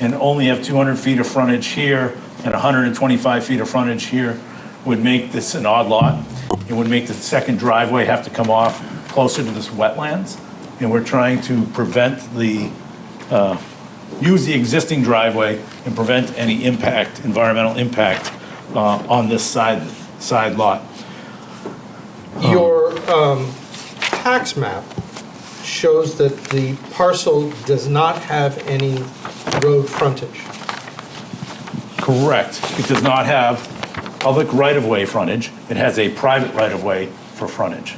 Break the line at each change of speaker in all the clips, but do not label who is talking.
and only have 200 feet of frontage here and 125 feet of frontage here would make this an odd lot. It would make the second driveway have to come off closer to this wetlands. And we're trying to prevent the, uh, use the existing driveway and prevent any impact, environmental impact uh, on this side, side lot.
Your um, tax map shows that the parcel does not have any road frontage.
Correct. It does not have public right-of-way frontage. It has a private right-of-way for frontage.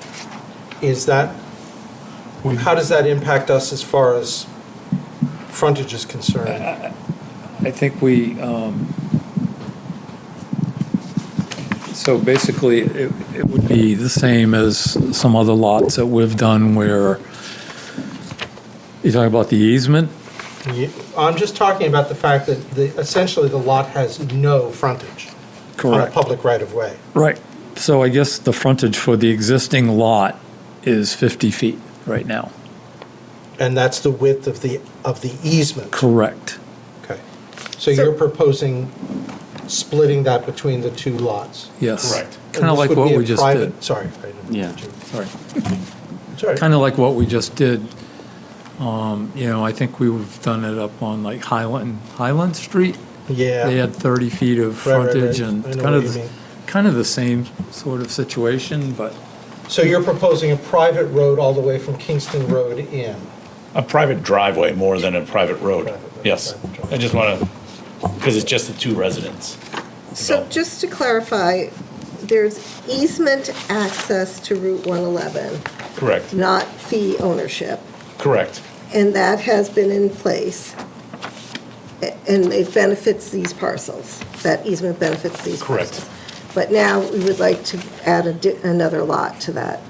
Is that, how does that impact us as far as frontage is concerned?
I think we, um, so basically, it it would be the same as some other lots that we've done where, you're talking about the easement?
Ye- I'm just talking about the fact that the, essentially the lot has no frontage on a public right-of-way.
Right. So I guess the frontage for the existing lot is 50 feet right now.
And that's the width of the, of the easement.
Correct.
Okay. So you're proposing splitting that between the two lots?
Yes.
Correct.
Kind
And
of
this
like
would
what
be a
we just
private-
did.
Sorry. I didn't-
Yeah.
Sorry.
Sorry.
kind of like what we just did. Um, You know, I think we've done it up on like Highland, Highland Street.
Yeah.
They had 30 feet of
Right, right, right.
frontage and
I know
kind
what
of,
you
the-
mean.
kind of the same sort of situation, but
So you're proposing a private road all the way from Kingston Road in?
A private driveway more than a private road. Yes. I just want to, because it's just the two residents.
So just to clarify, there's easement access to Route 111,
Correct.
not fee ownership,
Correct.
and that has been in place, a- and it benefits these parcels. That easement benefits these
Correct.
parcels. But now we would like to add a di- another lot to that.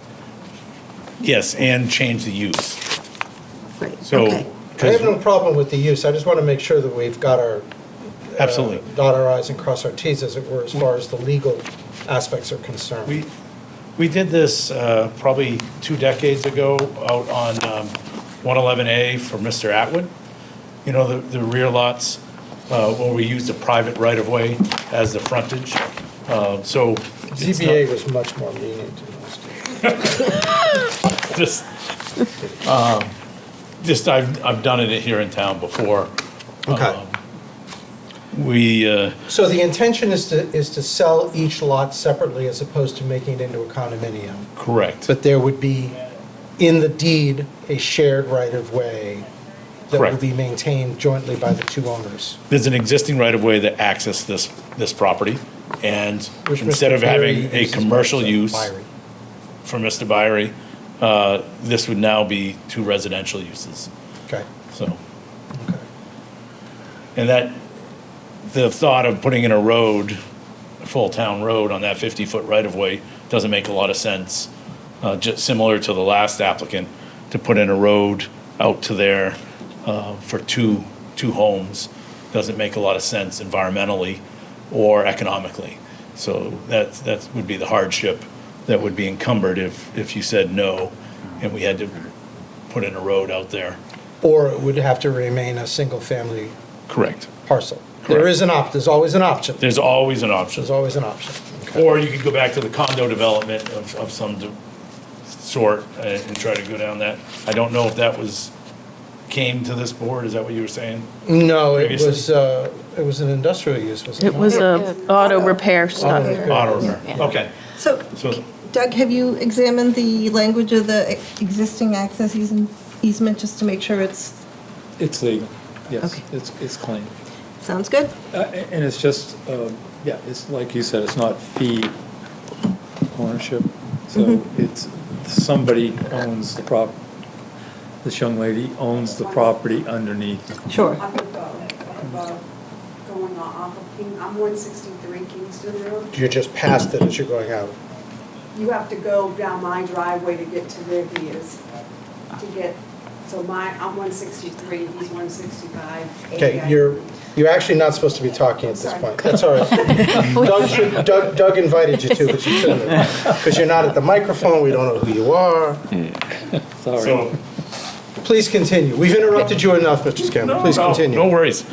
Yes, and change the use.
Right,
So,
okay.
I have no
because,
problem with the use, I just want to make sure that we've got our,
absolutely.
dot our i's and cross our t's, as it were, as far as the legal aspects are concerned.
We, we did this uh, probably two decades ago out on um, 111A for Mr. Atwood. You know, the, the rear lots, uh, where we used a private right-of-way as the frontage. Uh, So. it's
ZBA
not-
was much more lenient in those days.
Just, um, just, I've, I've done it here in town before.
Um,
Okay,
We, uh,
so the intention is to, is to sell each lot separately as opposed to making it into a condominium?
correct,
But there would be, in the deed, a shared right-of-way that
Correct.
would be maintained jointly by the two owners.
there's an existing right-of-way that accesses this, this property. And
which Mr.
instead of
Perry
having a
uses
commercial
as a
use.
winery.
for Mr. Byrie, uh, this would now be two residential uses,
Okay,
so.
okay.
And that, the thought of putting in a road, a full town road on that 50-foot right-of-way doesn't make a lot of sense. Uh, Just similar to the last applicant, to put in a road out to there uh, for two, two homes doesn't make a lot of sense environmentally or economically. So that, that would be the hardship that would be encumbered if, if you said no and we had to put in a road out there.
Or it would have to remain a single-family
Correct.
parcel. There
Correct.
is an op, there's always an option.
There's always an option.
There's always an option. Okay.
Or you could go back to the condo development of, of some de- sort uh, and try to go down that. I don't know if that was, came to this board, is that what you were saying?
No, it
Previously.
was, uh, it was an industrial use, was it
It
not?
was a auto repair shop.
Auto repair.
Auto repair, okay.
So
So,
Doug, have you examined the language of the existing access easen- easement, just to make sure it's,
it's legal. Yes,
Okay.
it's, it's clean.
sounds good?
Uh, a- And it's just, um, yeah, it's like you said, it's not fee ownership. So it's, somebody owns the prop, this young lady owns the property underneath.
Sure.
Up above, uh, above, going off of King, I'm one sixty-three Kingston Road.
You just passed it as you're going out.
You have to go down my driveway to get to where he is, to get, so my, I'm one sixty-three, he's one sixty-five.
Okay, you're, you're actually not supposed to be talking at this
Sorry.
point. That's all right. Doug should- Doug, Doug invited you to, but you shouldn't have. Because you're not at the microphone, we don't know who you are.
Sorry.
so.
Please continue. We've interrupted you enough, Mr. Scanlon. Please
No, no,
continue.
No worries.